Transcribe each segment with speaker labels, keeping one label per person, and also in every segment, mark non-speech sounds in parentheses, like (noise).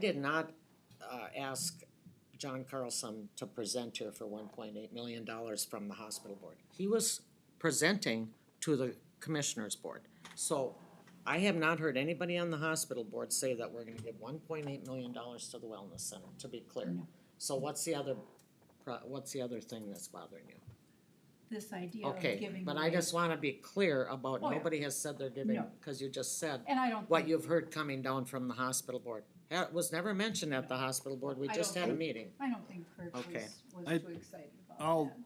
Speaker 1: did not uh, ask John Carlson to present here for one point eight million dollars from the hospital board. He was presenting to the commissioners board. So I have not heard anybody on the hospital board say that we're gonna give one point eight million dollars to the wellness center, to be clear. So what's the other, pro- what's the other thing that's bothering you?
Speaker 2: this idea of
Speaker 1: Okay,
Speaker 2: giving
Speaker 1: but I
Speaker 2: away.
Speaker 1: just wanna be clear about,
Speaker 2: Oh, yeah.
Speaker 1: nobody has said they're giving,
Speaker 2: No.
Speaker 1: cause you just said
Speaker 2: And I don't
Speaker 1: what
Speaker 2: think,
Speaker 1: you've heard coming down from the hospital board. That was never mentioned at the hospital board, we
Speaker 2: I
Speaker 1: just
Speaker 2: don't
Speaker 1: had a
Speaker 2: think-
Speaker 1: meeting.
Speaker 2: I don't think Kirk was,
Speaker 1: Okay.
Speaker 3: I-
Speaker 2: was too excited about
Speaker 3: I'll-
Speaker 2: that.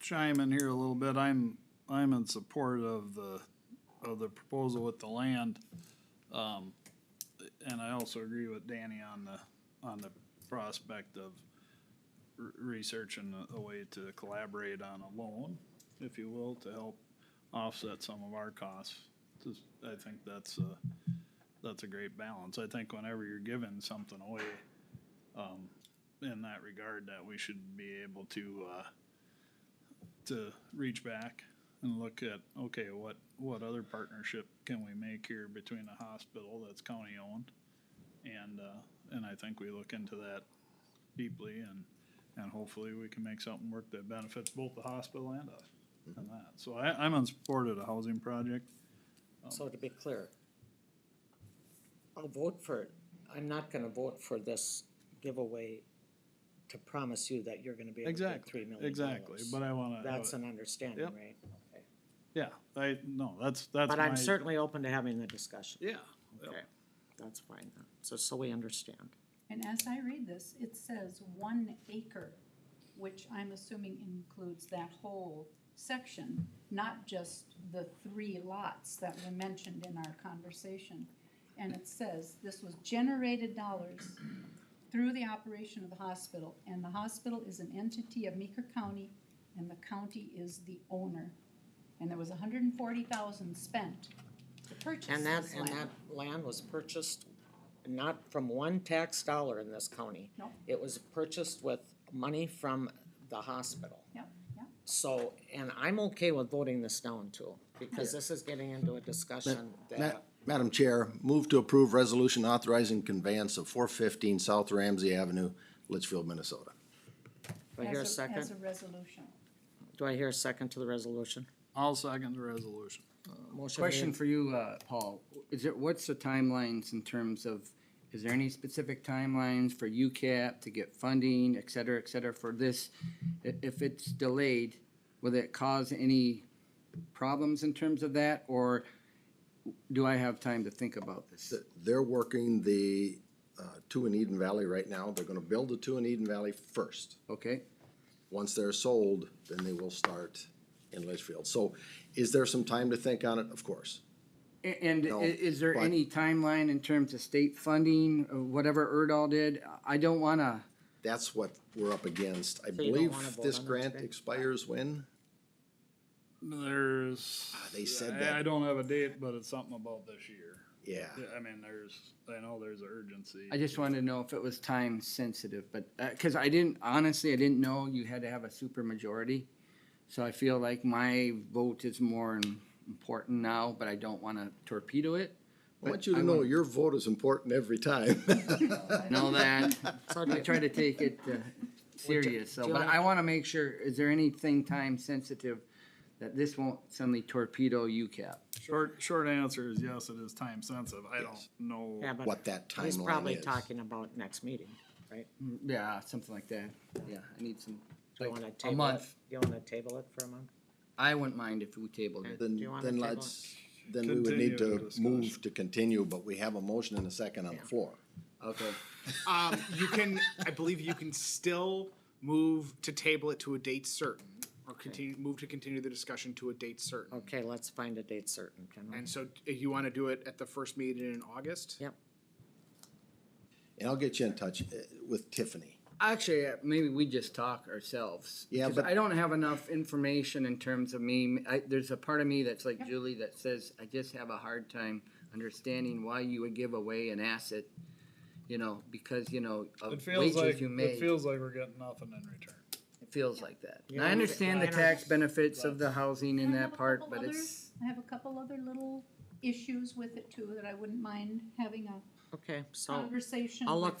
Speaker 3: chime in here a little bit. I'm, I'm in support of the, of the proposal with the land. Um, and I also agree with Danny on the, on the prospect of r- researching a- a way to collaborate on a loan, if you will, to help offset some of our costs. Just, I think that's a, that's a great balance. I think whenever you're giving something away, um, in that regard, that we should be able to, uh, to reach back and look at, okay, what, what other partnership can we make here between a hospital that's county owned? And, uh, and I think we look into that deeply and, and hopefully we can make something work that benefits both the hospital and us.
Speaker 1: Mm-hmm.
Speaker 3: And that, so I, I'm in support of the housing project. Oh.
Speaker 1: So to be clear, I'll vote for, it. I'm not gonna vote for this giveaway to promise you that you're gonna be able to get three
Speaker 3: Exactly,
Speaker 1: million dollars.
Speaker 3: exactly, but I wanna, have
Speaker 1: That's
Speaker 3: it-
Speaker 1: an understanding,
Speaker 3: Yep.
Speaker 1: right?
Speaker 3: yeah, I, no, that's, that's my.
Speaker 1: But I'm certainly open to having the discussion.
Speaker 3: Yeah. yep.
Speaker 1: Okay, that's fine, then. so, so we understand.
Speaker 2: And as I read this, it says one acre, which I'm assuming includes that whole section, not just the three lots that were mentioned in our conversation. And it says, this was generated dollars through the operation of the hospital, and the hospital is an entity of Meeker County, and the county is the owner. And there was a hundred and forty thousand spent to purchase
Speaker 1: And that,
Speaker 2: this
Speaker 1: and
Speaker 2: land.
Speaker 1: that land was purchased not from one tax dollar in this county.
Speaker 2: No.
Speaker 1: It was purchased with money from the hospital.
Speaker 2: Yep, yep.
Speaker 1: So, and I'm okay with voting this down too, because this is getting into a discussion
Speaker 4: Ma-
Speaker 1: that,
Speaker 4: Madam Chair, move to approve resolution authorizing conveyance of four fifteen South Ramsey Avenue, Litchfield, Minnesota.
Speaker 1: do I hear a
Speaker 2: As As a
Speaker 1: second?
Speaker 2: resolution.
Speaker 1: Do I hear a second to the resolution?
Speaker 3: I'll second the resolution.
Speaker 1: Motion
Speaker 5: Question
Speaker 1: made,
Speaker 5: for you, uh, Paul. Is there, what's the timelines in terms of, is there any specific timelines for UCAP to get funding, et cetera, et cetera, for this? I- If it's delayed, will it cause any problems in terms of that, or do I have time to think about this?
Speaker 4: Th- They're working the, uh, two in Eden Valley right now. They're gonna build the two in Eden Valley first.
Speaker 5: Okay,
Speaker 4: Once they're sold, then they will start in Litchfield. So is there some time to think on it? Of course.
Speaker 5: A- and
Speaker 4: No,
Speaker 5: i- is there
Speaker 4: but-
Speaker 5: any timeline in terms of state funding, uh, whatever Erdahl did? I don't wanna,
Speaker 4: That's what we're up against. I
Speaker 1: you don't
Speaker 4: believe
Speaker 1: wanna vote
Speaker 4: this
Speaker 1: on that
Speaker 4: grant
Speaker 1: today?
Speaker 4: expires when?
Speaker 3: There's.
Speaker 4: Ah, they said
Speaker 3: I-
Speaker 4: that.
Speaker 3: I don't have a date, but it's something about this year.
Speaker 4: Yeah.
Speaker 3: Yeah, I mean, there's, I know there's an urgency.
Speaker 5: I just wanted to know if it was time sensitive, but, uh 'cause cause I didn't, honestly, I didn't know you had to have a super majority. So I feel like my vote is more im- important now, but I don't wanna
Speaker 1: (laughs)
Speaker 5: torpedo it.
Speaker 4: I want you to
Speaker 5: I
Speaker 4: know
Speaker 5: want-
Speaker 4: your vote is important every time.
Speaker 5: Know that,
Speaker 1: so
Speaker 5: I
Speaker 1: do,
Speaker 5: try to take it uh, serious,
Speaker 1: do
Speaker 5: so,
Speaker 1: you
Speaker 5: but
Speaker 1: wanna-
Speaker 5: I wanna make sure, is there anything time sensitive that this won't suddenly torpedo UCAP?
Speaker 3: Short, short answer is yes, it is time sensitive. I don't
Speaker 4: Yes.
Speaker 3: know.
Speaker 1: yeah, but
Speaker 4: what that
Speaker 1: he's
Speaker 4: timeline
Speaker 1: probably
Speaker 4: is.
Speaker 1: talking about next meeting, right?
Speaker 5: Yeah, something like that, yeah, I need some,
Speaker 1: Do you wanna
Speaker 5: like, a
Speaker 1: table it?
Speaker 5: month.
Speaker 1: You wanna table it for a month?
Speaker 5: I wouldn't mind if we tabled it.
Speaker 1: Do
Speaker 4: Then,
Speaker 1: you wanna
Speaker 4: then
Speaker 1: table it?
Speaker 4: let's, then we would need
Speaker 3: Continue
Speaker 4: to
Speaker 3: the
Speaker 4: move
Speaker 3: discussion.
Speaker 4: to continue, but we have a motion and a second on the floor.
Speaker 5: Okay,
Speaker 6: Um, you can, I believe you can still move to table it to a date certain, or continue, move to continue the discussion to a date certain.
Speaker 1: Okay, let's find a date certain, can we?
Speaker 6: And so, if you wanna do it at the first meeting in August?
Speaker 1: Yep,
Speaker 4: And I'll get you in touch uh, with Tiffany.
Speaker 5: Actually, uh, maybe we just talk ourselves.
Speaker 4: Yeah,
Speaker 5: 'Cause
Speaker 4: but-
Speaker 5: I don't have enough information in terms of me. I, there's a part of me that's like Julie that says I just have a hard time understanding why you would give away an asset, you know, because you know of
Speaker 3: It feels
Speaker 5: wages
Speaker 3: like,
Speaker 5: you made.
Speaker 3: it feels like we're getting nothing in return.
Speaker 5: like that.
Speaker 1: Yeah,
Speaker 5: And I
Speaker 1: I
Speaker 5: understand the
Speaker 1: know.
Speaker 5: tax benefits of the housing in
Speaker 2: I have
Speaker 5: that
Speaker 2: a
Speaker 5: part,
Speaker 2: couple
Speaker 5: but
Speaker 2: other-
Speaker 5: it's
Speaker 2: I have a couple other little issues with it too that I wouldn't mind having a Okay, so
Speaker 1: conversation
Speaker 2: I'll Um,
Speaker 1: with
Speaker 2: look